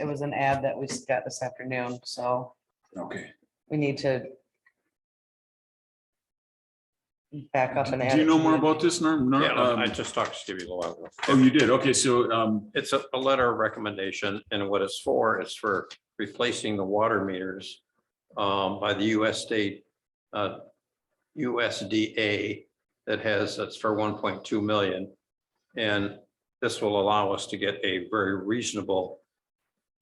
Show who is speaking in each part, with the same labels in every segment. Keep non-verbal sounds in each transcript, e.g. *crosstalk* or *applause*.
Speaker 1: it was an ad that we got this afternoon, so
Speaker 2: Okay.
Speaker 1: we need to back up and add.
Speaker 2: Do you
Speaker 1: it
Speaker 2: know
Speaker 1: to
Speaker 2: more
Speaker 1: the-
Speaker 2: about this, Norm? Norm,
Speaker 3: Yeah, I
Speaker 2: um,
Speaker 3: just talked to Stevie a little while ago.
Speaker 2: Oh, you did? Okay, so, um,
Speaker 3: It's a, a letter of recommendation and what it's for, it's for replacing the water meters um, by the US state uh, USDA that has, that's for one point two million. And this will allow us to get a very reasonable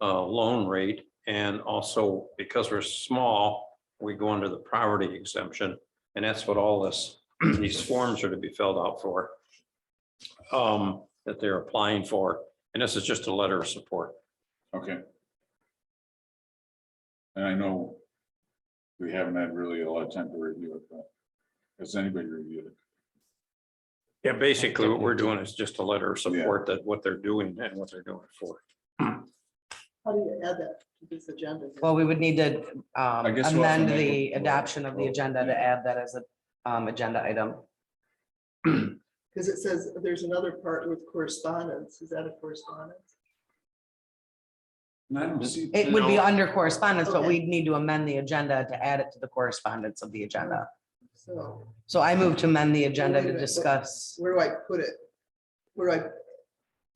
Speaker 3: uh, loan rate. And also because we're small, we go under the poverty exemption. And that's what all this, *clears throat* these forms are to be filled out for. um, That they're applying for. And this is just a letter of support.
Speaker 2: okay. And I know we haven't had really a lot of time to review it, but has anybody reviewed it?
Speaker 3: Yeah, basically what we're doing is just a letter of
Speaker 2: Yeah.
Speaker 3: support that what they're doing and what they're doing it for.
Speaker 4: How do you add that to this agenda?
Speaker 1: Well, we would need to um,
Speaker 2: I guess we'll have to
Speaker 1: amend
Speaker 2: make
Speaker 1: the
Speaker 2: a-
Speaker 1: adoption of the agenda to add that as a um, agenda item.
Speaker 4: Because it says there's another part with correspondence. Is that a correspondence?
Speaker 2: And I don't see.
Speaker 1: It would be
Speaker 3: No.
Speaker 1: under correspondence, but
Speaker 4: Okay.
Speaker 1: we'd need to amend the agenda to add it to the correspondence of the agenda.
Speaker 4: So
Speaker 1: So I move to amend the agenda
Speaker 4: Wait a
Speaker 1: to
Speaker 4: minute.
Speaker 1: discuss
Speaker 4: where do I put it? Where do I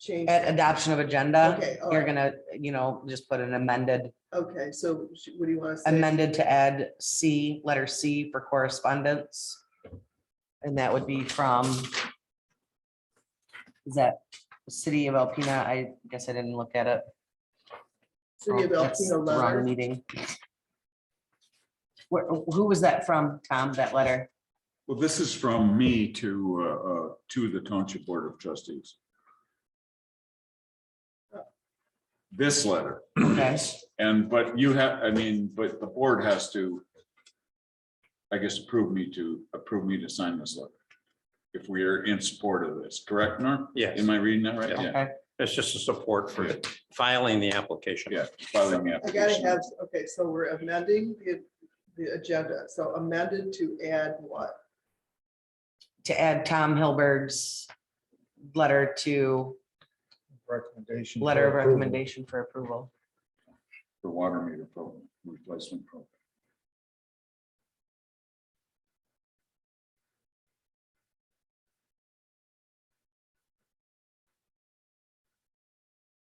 Speaker 4: change?
Speaker 1: at
Speaker 4: it?
Speaker 1: adoption of agenda.
Speaker 4: Okay, all
Speaker 1: You're
Speaker 4: right.
Speaker 1: gonna, you know, just put an amended,
Speaker 4: Okay, so sh- what do you want to say?
Speaker 1: amended to add C, letter C for correspondence. And that would be from is that the city of Alpena? I guess I didn't look at it.
Speaker 4: City of
Speaker 1: Oh, that's
Speaker 4: Alpena
Speaker 1: the wrong
Speaker 4: letter.
Speaker 1: Meeting. Where, who was that from, Tom, that letter?
Speaker 2: Well, this is from me to, uh, uh, to the Township Board of Trustees. This letter,
Speaker 1: Okay,
Speaker 2: and, but you have, I mean, but the board has to, I guess, approve me to, approve me to sign this letter. If we are in support of this, correct, Norm?
Speaker 3: Yes,
Speaker 2: Am I reading that right?
Speaker 3: Yeah.
Speaker 1: okay.
Speaker 3: it's just a support for filing the application.
Speaker 2: Yeah, filing the
Speaker 4: I gotta
Speaker 2: application.
Speaker 4: have, okay, so we're amending the, the agenda. So amended to add what?
Speaker 1: To add Tom Hilberg's letter to
Speaker 5: Recommendation.
Speaker 1: letter of
Speaker 5: for approval.
Speaker 1: recommendation for approval.
Speaker 2: The water meter program, replacement program.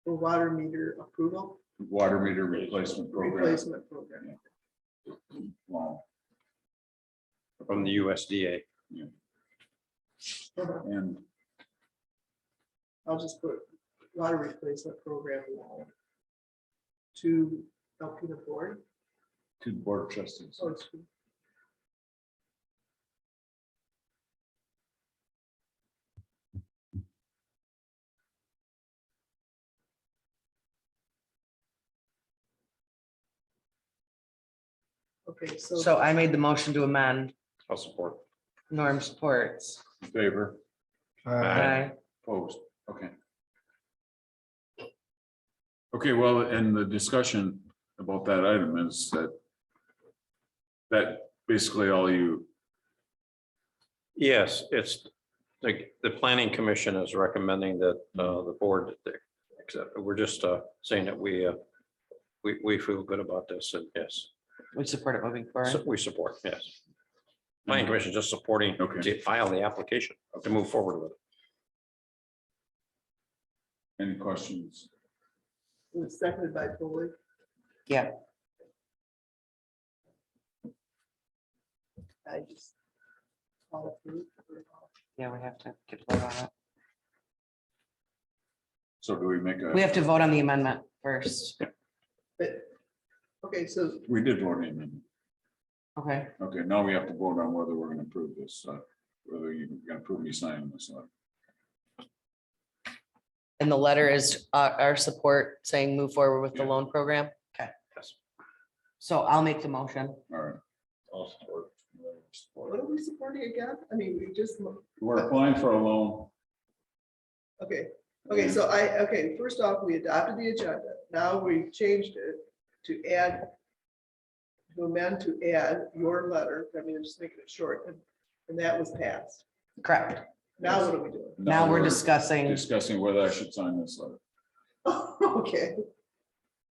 Speaker 4: The water meter approval
Speaker 2: Water meter replacement program.
Speaker 4: replacement program.
Speaker 2: Wow.
Speaker 3: From the USDA.
Speaker 2: And
Speaker 4: I'll just put water replacement program wall to Alpena Board.
Speaker 2: to the board of trustees.
Speaker 4: So it's- Okay, so.
Speaker 1: So I made the motion to amend,
Speaker 3: I'll support.
Speaker 1: Norm supports.
Speaker 2: In Favor,
Speaker 5: Uh,
Speaker 3: Aye.
Speaker 1: Aye.
Speaker 2: opposed, okay. Okay, well, and the discussion about that item is that that basically all you,
Speaker 3: Yes, it's, the, the planning commission is recommending that uh,
Speaker 2: Mm-hmm.
Speaker 3: the board, that they- except we're just uh, saying that we, uh, we, we feel good about this and yes,
Speaker 1: We support it moving
Speaker 3: so
Speaker 1: forward.
Speaker 3: we support, yes. Planning commission just supporting
Speaker 2: Mm-hmm. Okay.
Speaker 3: to file the application to move forward with it.
Speaker 2: any questions?
Speaker 4: It was Seconded by Foley.
Speaker 1: Yeah.
Speaker 4: I just. all approved.
Speaker 1: Yeah, we have to get a vote on it.
Speaker 2: So do we make
Speaker 1: We
Speaker 2: a,
Speaker 1: have to vote on the amendment first.
Speaker 4: But, okay, so
Speaker 2: we did vote in, and-
Speaker 1: Okay,
Speaker 2: okay, now we have to vote on whether we're gonna approve this, uh, whether you're gonna approve me signing this uh, letter.
Speaker 1: and the letter is uh, our support saying move forward with the loan program? Okay.
Speaker 3: Yes.
Speaker 1: So I'll make the motion.
Speaker 2: All right.
Speaker 4: what are we supporting again? I mean, we just, mo-
Speaker 2: We're applying for a loan.
Speaker 4: okay, okay, so I, okay, first off, we adopted the agenda. Now we changed it to add. To amend to add your letter. I mean, just making it short and, and that was passed.
Speaker 1: Correct.
Speaker 4: Now what are we doing?
Speaker 1: Now we're discussing,
Speaker 2: uh, Discussing whether I should sign this letter.
Speaker 4: *laughs* Okay,